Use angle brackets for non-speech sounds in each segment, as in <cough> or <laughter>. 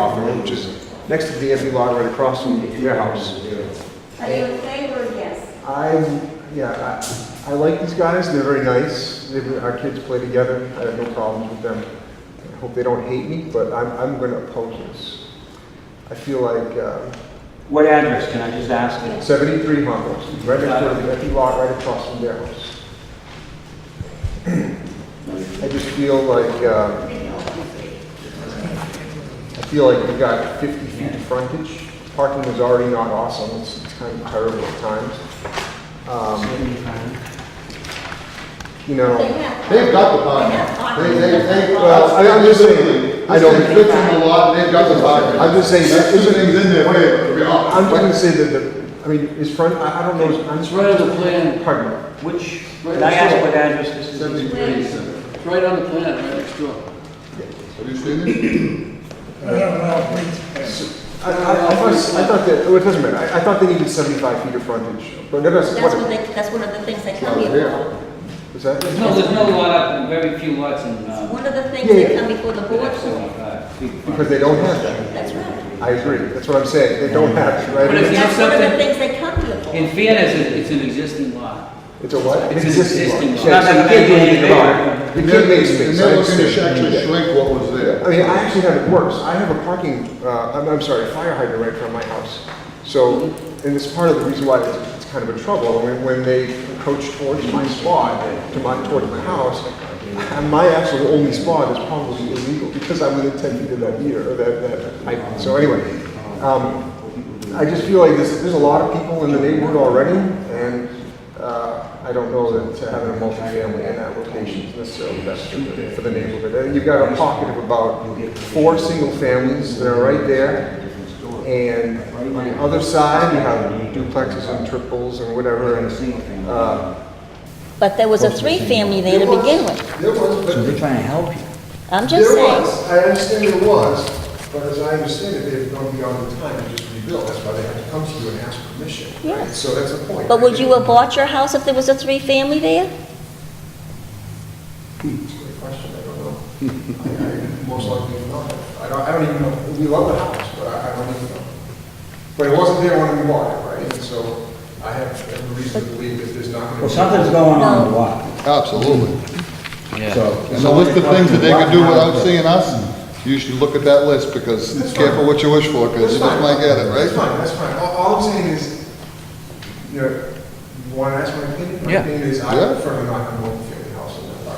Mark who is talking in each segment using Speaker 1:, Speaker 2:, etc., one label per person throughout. Speaker 1: Hawthorne, which is next to the DMV lot right across from your house.
Speaker 2: Are you in favor or yes?
Speaker 1: I, yeah, I, I like these guys, they're very nice, They were- our kids play together, I have no problems with them. I hope they don't hate me, but I'm, I'm gonna oppose this. I feel like, uh,
Speaker 3: What address, can I just ask? you?
Speaker 1: seventy-three Humble, right next to the empty lot right across from their house. <clears throat> I just feel like, uh, I feel like we got fifty feet of frontage. Parking is already not awesome, it's it's kind of terrible at times. Um, You know.
Speaker 2: They have-
Speaker 4: They've got the
Speaker 2: They have
Speaker 4: parking. They,
Speaker 2: parking.
Speaker 4: they, they,
Speaker 1: Well,
Speaker 4: well,
Speaker 1: I- I'm just saying, I don't-
Speaker 4: This thing fits in the lot, they've got the parking.
Speaker 1: I'm just saying,
Speaker 4: That's
Speaker 1: isn't-
Speaker 4: two things in there, wait, to be
Speaker 1: I'm
Speaker 4: honest.
Speaker 1: just gonna say that the, I mean, is front, I I don't know, I'm
Speaker 5: It's
Speaker 1: just.
Speaker 5: right on the plan,
Speaker 1: Pardon me.
Speaker 3: Which, can I ask what address this is?
Speaker 4: Seventy-three, seven.
Speaker 5: it's right on the plan, right next door.
Speaker 4: Have you seen it?
Speaker 1: I, I, I thought, I thought that, well, it doesn't matter, I, I thought they needed seventy-five feet of frontage, but never,
Speaker 2: That's what
Speaker 1: what,
Speaker 2: they, that's one of the things they
Speaker 4: Oh,
Speaker 2: come here
Speaker 4: yeah.
Speaker 2: for.
Speaker 1: is that?
Speaker 5: There's no, there's no lot up, very few lots in, uh,
Speaker 2: One of the things
Speaker 1: Yeah,
Speaker 2: they
Speaker 1: yeah.
Speaker 2: come before the board
Speaker 5: that's,
Speaker 2: for.
Speaker 5: uh, big
Speaker 1: Because
Speaker 5: front.
Speaker 1: they don't have that.
Speaker 2: That's right.
Speaker 1: I agree, that's what I'm saying, they don't have it,
Speaker 5: But if
Speaker 1: right?
Speaker 5: you- know
Speaker 2: That's one of the
Speaker 5: something?
Speaker 2: things they come here
Speaker 5: In
Speaker 2: for.
Speaker 5: fairness, it- it's an existing lot.
Speaker 1: It's a what?
Speaker 5: It's an existing lot.
Speaker 1: Yeah, so you can't do anything about it. You
Speaker 4: And
Speaker 1: can't
Speaker 4: they're-
Speaker 1: make space.
Speaker 4: And
Speaker 1: I
Speaker 4: they're looking to
Speaker 1: understand.
Speaker 4: actually shrink what was there.
Speaker 1: I mean, I actually have it worse. I have a parking, uh, I'm, I'm sorry, a fire hydrant right in front of my house. So, and it's part of the reason why it's, it's kind of a trouble. When, when they approach towards my spot, to my, towards my house, and my actual only spot is probably illegal because I'm within ten feet of that meter, or that, that hydrant. So anyway, um, I just feel like there's, there's a lot of people in the neighborhood already, and, uh, I don't know that to having a multifamily in that location is necessarily best for the, for the neighborhood. And you've got a pocket of about four single families that are right there, and on the other side, you have duplexes and triples and whatever, and, uh.
Speaker 2: But there was a three-family there to begin with.
Speaker 1: There was, but
Speaker 6: We're trying to help you.
Speaker 2: I'm just
Speaker 1: There
Speaker 2: saying.
Speaker 1: was, I understand there was, but as I understand it, they've gone beyond the time to just rebuild, that's why they had to come to you and ask permission. right?
Speaker 2: Yes.
Speaker 1: So that's the point.
Speaker 2: But would you have bought your house if there was a three-family there?
Speaker 1: It's a good question, I don't know. I- I Most likely not. I don't, I don't even know, we love the house, but I I don't even know. But it wasn't there when we bought it, right? And so I have every reason to believe that there's not
Speaker 6: Well,
Speaker 1: going to
Speaker 6: something's going on in the lot.
Speaker 4: Absolutely.
Speaker 6: So
Speaker 4: And the list of things that they could do without seeing us, you should look at that list, because careful what you wish for, because
Speaker 1: That's
Speaker 4: you
Speaker 1: fine.
Speaker 4: just might get it, right?
Speaker 1: That's fine, that's fine. All, all I'm saying is, you know, you want to ask my opinion? My
Speaker 6: Yeah.
Speaker 1: opinion is I
Speaker 4: Yeah.
Speaker 1: prefer not to own a family house in that lot.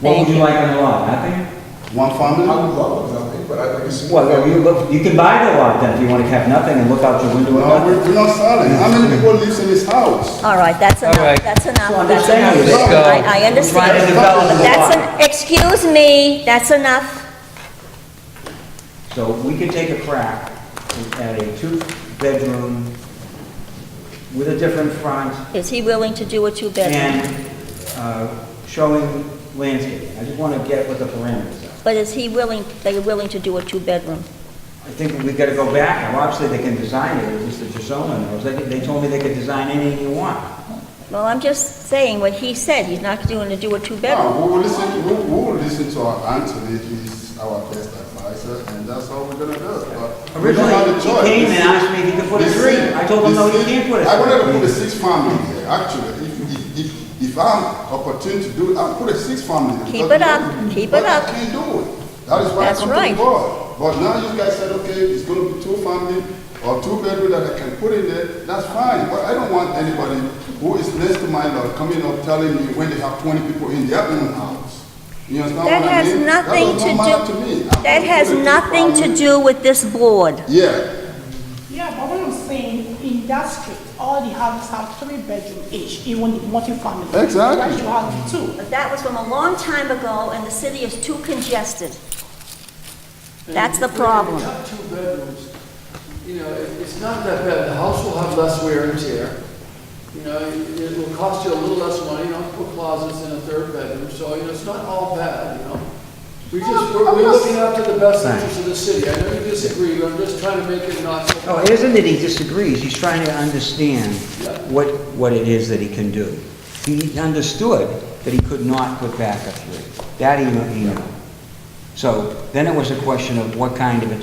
Speaker 6: What would you like on the lot, nothing?
Speaker 7: One
Speaker 1: I
Speaker 7: family?
Speaker 1: would love nothing, but I'd like to see.
Speaker 6: Well, you look, you can buy the lot then if you want to have nothing and look out your window and
Speaker 7: No,
Speaker 6: nothing.
Speaker 7: we- we're not selling. How many people lives in this house?
Speaker 2: All right, that's enough,
Speaker 8: All right.
Speaker 2: that's enough.
Speaker 6: So I'm
Speaker 2: that's
Speaker 6: just saying,
Speaker 2: enough.
Speaker 6: let's go.
Speaker 2: I, I
Speaker 6: Trying to
Speaker 2: understand.
Speaker 6: develop the
Speaker 2: But That's
Speaker 6: lot.
Speaker 2: an, excuse me, that's enough.
Speaker 6: So we could take a crack at a two-bedroom with a different front
Speaker 2: Is he willing to do a two-bedroom?
Speaker 6: and uh, showing landscaping. I just want to get what the parameters are.
Speaker 2: But is he willing, they are willing to do a two-bedroom?
Speaker 6: I think we've got to go back, and obviously they can design it, at least the Gisoma knows. They, they told me they could design anything you want.
Speaker 2: Well, I'm just saying what he said, he's not going to do a two-bedroom.
Speaker 7: No, we will listen, we we will listen to our Anthony, he's our best advisor, and that's how we're gonna do it, but we don't
Speaker 6: Originally,
Speaker 7: have
Speaker 6: he
Speaker 7: a choice.
Speaker 6: came and asked me if he could put a
Speaker 7: The
Speaker 6: three.
Speaker 7: six-
Speaker 6: I told him,
Speaker 7: the
Speaker 6: no, you
Speaker 7: six-
Speaker 6: can't put a
Speaker 7: I would have
Speaker 6: three.
Speaker 7: put a six family there, actually, if, if, if, if I'm opportune to do it, I'll put a six family. there,
Speaker 2: Keep
Speaker 7: because
Speaker 2: it up,
Speaker 7: nobody-
Speaker 2: keep
Speaker 7: but
Speaker 2: it up.
Speaker 7: I can't do it, that is why I
Speaker 2: That's
Speaker 7: come to
Speaker 2: right.
Speaker 7: the board. But now you guys said, okay, it's gonna be two family or two bedroom that I can put in there, that's fine, but I don't want anybody who is next to my lot coming up telling me when they have twenty people in their own house. You understand what
Speaker 2: That
Speaker 7: I
Speaker 2: has
Speaker 7: mean?
Speaker 2: nothing
Speaker 7: does
Speaker 2: to
Speaker 7: not matter to me.
Speaker 2: do, that
Speaker 7: I'm gonna
Speaker 2: has
Speaker 7: put a two
Speaker 2: nothing to
Speaker 7: family.
Speaker 2: do with this board.
Speaker 7: Yeah,
Speaker 9: Yeah, but what I'm saying, in that street, all the houses have three bedroom each, even the multifamily.
Speaker 7: Exactly.
Speaker 9: Right, you have two.
Speaker 2: But that was from a long time ago, and the city is too congested. That's the problem.
Speaker 10: Not two bedrooms, you know, it- it's not that bad, the house will have less wear and tear. You know, it it will cost you a little less money, you know, to put closets in a third bedroom, so, you know, it's not all bad, you know? We just, we're, we're looking after the best interests of the city, I know you disagree, but I'm just trying to make it not so.
Speaker 6: Oh, it isn't that he disagrees, he's trying to understand what, what it is that he can do. He understood that he could not put back a three. That he knew- he knew. So then it was a question of what kind of a